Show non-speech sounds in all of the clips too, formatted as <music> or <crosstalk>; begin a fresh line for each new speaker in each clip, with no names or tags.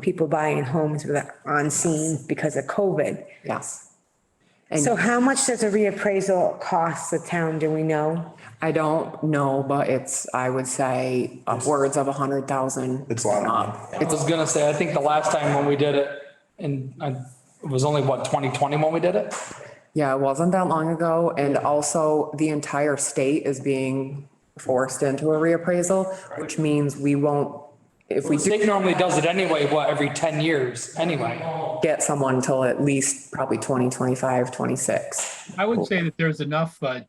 people buying homes with, on scene because of COVID.
Yes.
So how much does a reappraisal cost the town, do we know?
I don't know, but it's, I would say upwards of a hundred thousand.
It's a lot of money.
Uh,
I was gonna say, I think the last time when we did it, and I, it was only what, twenty twenty when we did it?
Yeah, it wasn't that long ago. And also the entire state is being forced into a reappraisal, which means we won't, if we
The
do
state normally does it anyway, what, every ten years, anyway.
get someone until at least probably 2025, 26.
I would say that there's enough, uh,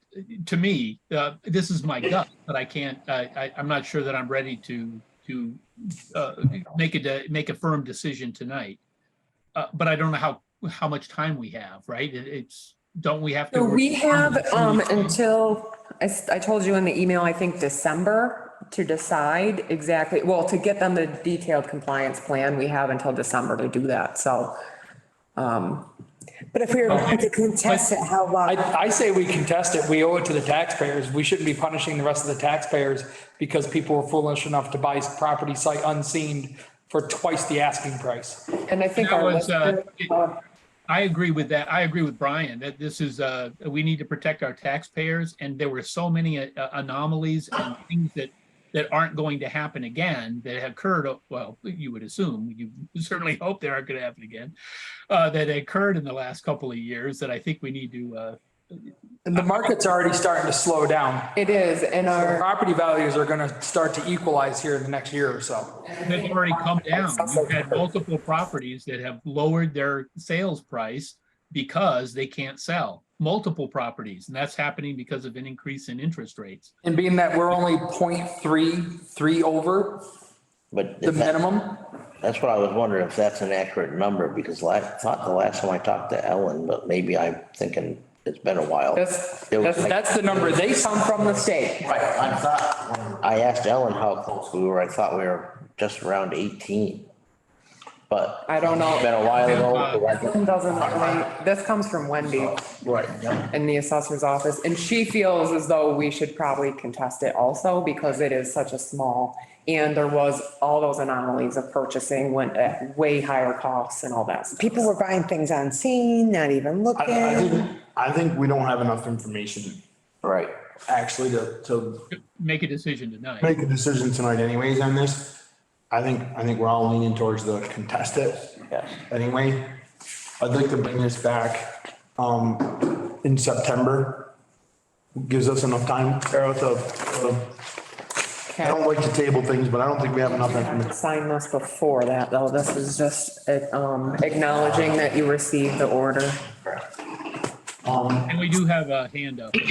to me, uh, this is my gut, but I can't, I, I, I'm not sure that I'm ready to, to, uh, make a, de- make a firm decision tonight. Uh, but I don't know how, how much time we have, right? It, it's, don't we have to?
So we have, um, until, I, s- I told you in the email, I think December to decide exactly, well, to get them the detailed compliance plan, we have until December to do that. So
But if we were going to contest it, how
I,
long?
I say we contest it, we owe it to the taxpayers, we shouldn't be punishing the rest of the taxpayers because people were foolish enough to buy property site unseen for twice the asking price.
And I think
That
our
was, uh,
listener-
I agree with that. I agree with Brian that this is, uh, we need to protect our taxpayers and there were so many uh, anomalies and things that, that aren't going to happen again that have occurred, uh, well, you would assume, you certainly <laughs> hope they aren't going to happen again, uh, that occurred in the last couple of years that I think we need to, uh,
And the market's already starting to slow down.
it is, and our,
Property values are gonna start to equalize here in the next year or so.
they've already come down. We've had multiple properties that have lowered their sales price because they can't sell, multiple properties. And that's happening because of an increase in interest rates.
And being that we're only 0.33 over
But
the
if that-
minimum,
that's what I was wondering, if that's an accurate number, because I thought the last time I talked to Ellen, but maybe I'm thinking it's been a while.
that's,
It was
that's,
like-
that's the number they
come from the state.
Right, I thought, when I asked Ellen how close we were, I thought we were just around eighteen. But
I don't know.
it's been a while ago. so I don't-
Doesn't, really- this comes from Wendy
Right, yeah.
in the assessor's office, and she feels as though we should probably contest it also because it is such a small, and there was all those anomalies of purchasing went at way higher costs and all that. stuff.
People were buying things on scene, not even
I, I
looking.
think, I think we don't have enough information
Right.
actually to, to
make a decision tonight.
make a decision tonight anyways on this. I think, I think we're all leaning towards the contest it.
Yes.
Anyway, I'd like to bring this back, um, in September. Gives us enough time, Carol, to, to- I don't like to table things, but I don't think we have enough
I
information.
had to Sign this before that, though. This is just um, acknowledging that you received the order.
And we do have a hand up.
Um,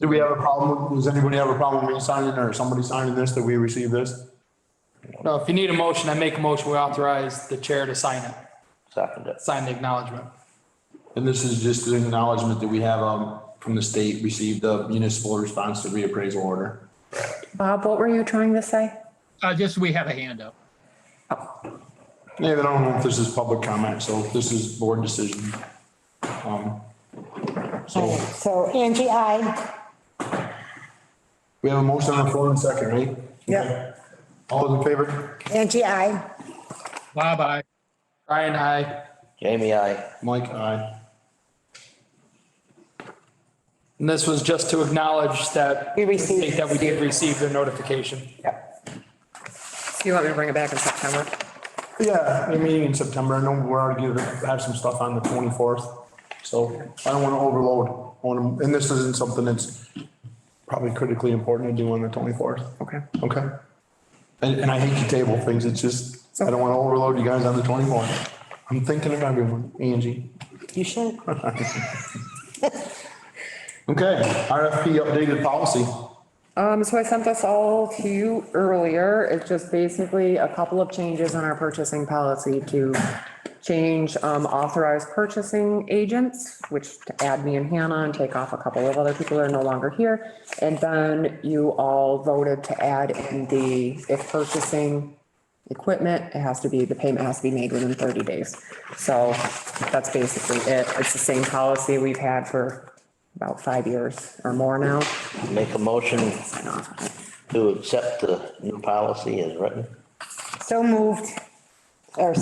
Do we have a problem? Does anybody have a problem with me signing or somebody signing this that we receive this?
No, if you need a motion, I make a motion, we authorize the chair to sign it,
Second it.
sign the acknowledgement.
And this is just an acknowledgement that we have, um, from the state, received the municipal response to reappraisal order.
Bob, what were you trying to say?
Uh, just, we have a hand up.
David, I don't know if this is public comment, so this is board decision. Um, So
So Angie, I,
we have a motion on the floor in a second, right?
Yeah.
All those in favor?
Angie, I,
Bob, I,
Ryan, I,
Jamie, I,
Mike, aye.
and this was just to acknowledge that.
We received-
That we did receive the notification.
So you want me to bring it back in September?
Yeah, the meeting in September, I know we're already gonna have some stuff on the twenty-fourth, so I don't wanna overload on them, and this isn't something that's probably critically important to do on the twenty-fourth.
Okay.
Okay. And, and I hate to table things, it's just, I don't wanna overload you guys on the twenty-fourth. I'm thinking of everyone, Angie.
you should.
Okay, RFP updated policy.
Um, so I sent this all to you earlier. It's just basically a couple of changes in our purchasing policy to change, um, authorized purchasing agents, which to add me and Hannah and take off a couple of other people that are no longer here. And then you all voted to add in the, if purchasing equipment, it has to be, the payment has to be made within thirty days. So that's basically it. It's the same policy we've had for about five years or more now.
make a motion to accept the new policy as written.
So moved. Or